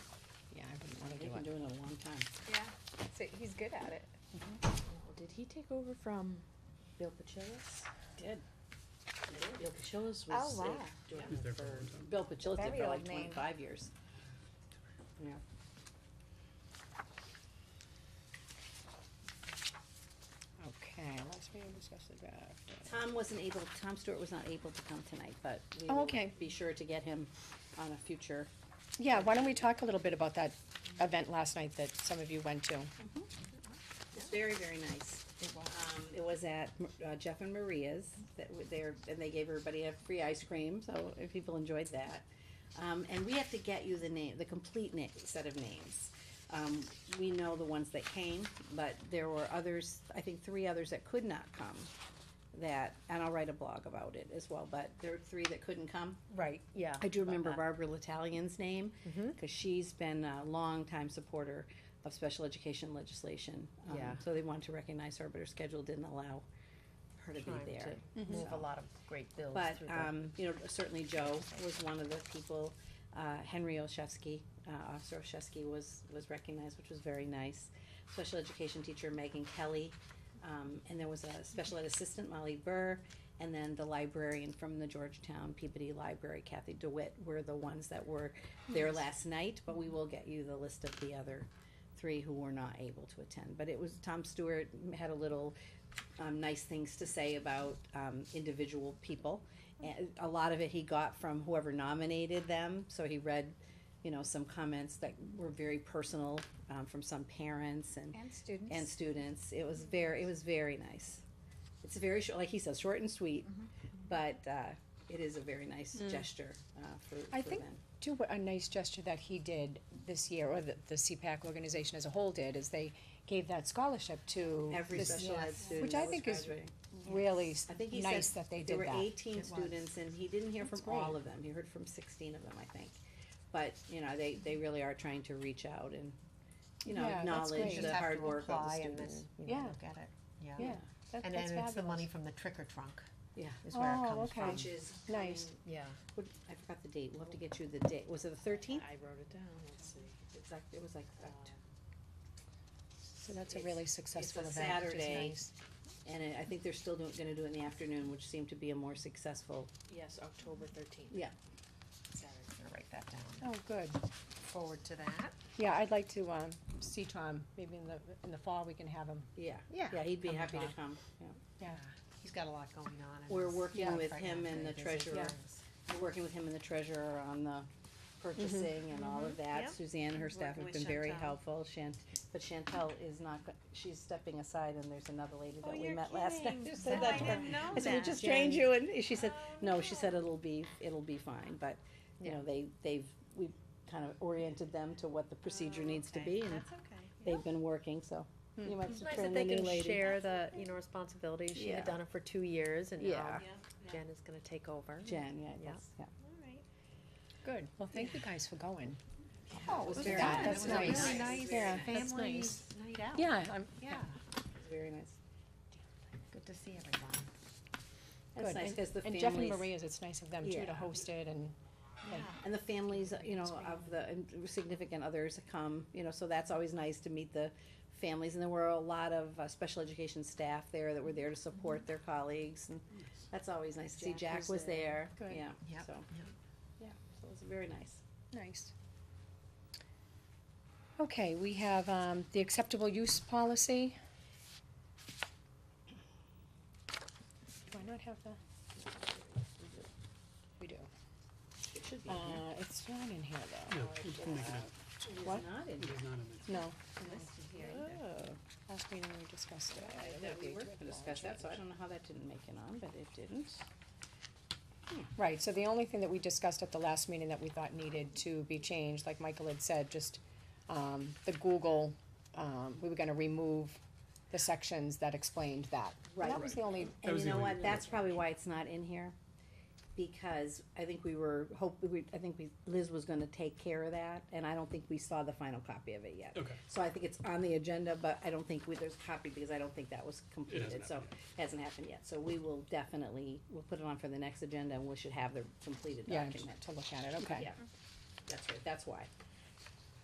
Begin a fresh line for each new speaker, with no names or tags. Yeah, so he's good at it.
Well, Did he take over from Bill Pachillas?
Did.
Bill Pachillas
Oh,
was
wow.
like doing
He's
it
there for a
for,
long time.
Bill Pachillas did
Very
it for
old
like
name.
twenty-five years. Yeah.
Okay, last meeting discussed the draft.
Tom wasn't able, Tom Stewart was not able to come tonight, but we
Oh,
will
okay.
be sure to get him on a future.
Yeah, why don't we talk a little bit about that event last night that some of you went to?
It's very, very nice. Um, it was at uh, Jeff and Maria's that were there, and they gave everybody a free ice cream, so if people enjoyed that. Um, and we have to get you the name, the complete na- set of names. Um, we know the ones that came, but there were others, I think three others that could not come. That, and I'll write a blog about it as well, but there were three that couldn't come.
Right, yeah. Mm-hmm.
I do remember Barbara Litalian's name, because she's been a longtime supporter of special education legislation. Um,
Yeah.
So they wanted to recognize her, but her schedule didn't allow her to be there.
Mm-hmm.
Move a lot of great bills
But, um, you know, certainly Joe was one of the people, uh, Henry Olszewski, uh, Officer Olszewski was, was recognized, which was very nice. Special education teacher Megan Kelly, um, and there was a special ed assistant Molly Burr, and then the librarian from the Georgetown Peabody Library, Kathy DeWitt, were the ones that were there last night, but we will get you the list of the other three who were not able to attend. But it was, Tom Stewart had a little, um, nice things to say about, um, individual people. And a lot of it he got from whoever nominated them, so he read, you know, some comments that were very personal, um, from some parents and
And students.
and students. It was very, it was very nice. It's very short, like he says, short and sweet,
Mm-hmm.
but uh, it is a very nice gesture uh, for,
Mm. I
for
think
them.
too, what a nice gesture that he did this year, or the, the CPAC organization as a whole did, is they gave that scholarship to
Every
this-
special ed student
Which I
that was
think is
graduating.
really s-
I think he
nice
said
that they
there
did
were
that.
18 students, and he didn't hear from all of them. He heard from 16 of them, I think. But you know, they, they really are trying to reach out and you know
Yeah, that's
acknowledge
great.
the
Just have
hard
to
work of the
apply and
students.
then, you know,
Yeah.
Look at it, yeah.
Yeah,
Um,
that, that's
And then it's the
fabulous.
money from the trick or trunk
Yeah.
is where
Oh,
it comes
okay.
from.
Which is
Nice.
coming-
Yeah.
what- I forgot the date. We'll have to get you the date. Was it the Uh, 13th?
I wrote it down, let's see.
It's like, it was like October.
So that's a really successful
a
event, which is
Saturday.
nice.
And I- I think they're still doing, gonna do it in the afternoon, which seemed to be a more successful,
Yes, October thirteenth.
yeah.
I'm gonna write that down.
Oh, good.
Forward to that.
Yeah, I'd like to, um, see Tom, maybe in the, in the fall, we can have him.
Yeah.
Yeah.
Yeah, he'd be
Come
happy to
talk.
come, yeah.
Yeah.
He's got a lot going on. and
We're
he's
working
got
with
pregnant
him and
very
the
busy.
treasurer. We're working with him and the treasurer on the purchasing and all of
Yeah.
that. Suzanne and her staff
Working
have been
with
very
Chantel.
helpful, Shan, but Chantel is not, go- she's stepping aside and there's another lady that we
you're
met last night.
kidding.
who said that to her.
know
I said, we just trained you, and she said, no, she said it'll be, it'll be fine, but, you know, they, they've, we kind of oriented them to what the procedure needs to be, and
Oh, okay.
they've been working, so you might have
It's
to
nice
turn
that
the
they
new
can
lady.
share the, you know, responsibilities. She
Yeah.
had done it for two years and
uh,
Yeah.
now
Yeah,
yeah.
Jen is gonna take over.
Jen, yeah,
Yeah.
that's, yeah.
Good. Well, thank you guys for going.
Oh, it was very
that?
nice,
That's
it was
nice.
Really nice.
Yeah. That's
Family
nice.
night out.
Yeah, I'm,
Yeah.
very nice.
Good to see everyone.
It's
good.
nice,
And-
cause the
And Jeff and
families,
Maria's, it's nice of them too
Yeah.
to host it and,
and the families, you know, of the and significant others come, you know, so that's always nice to meet the families, and there were a lot of, uh, special education staff there that were there to support their colleagues, and that's always Mm-hmm. nice to see,
Jack
Jack
was
was there,
Good.
yeah,
Yep,
so.
yep.
Yeah, so it was very nice.
nice. Okay, we have, um, the acceptable use policy. Do I not have the? We do.
It should be
Uh,
in here.
it's not in here though.
No, it's only gonna-
It is
what?
not in
it
here.
is not in there.
No,
Oh,
last meeting we discussed it.
I thought we were gonna discuss that, so I don't know how that didn't make it on, but it didn't.
Right, so the only thing that we discussed at the last meeting that we thought needed to be changed, like Michael had said, just, um, the Google, um, we were gonna remove the sections that explained that. That was the only,
And
was
you
the
know
only
what, that's probably why it's not in here, because I think we were, hope, we, I think we, Liz was gonna take care of that, and I don't think we saw the final copy of it yet.
Okay.
So I think it's on the agenda, but I don't think we, there's a copy, because I don't think that was completed, so,
happened
hasn't happened yet, so we will definitely, we'll put it on for the next agenda, and we should have the completed
yeah,
document.
to look at it, okay.
Yeah, that's right, that's why,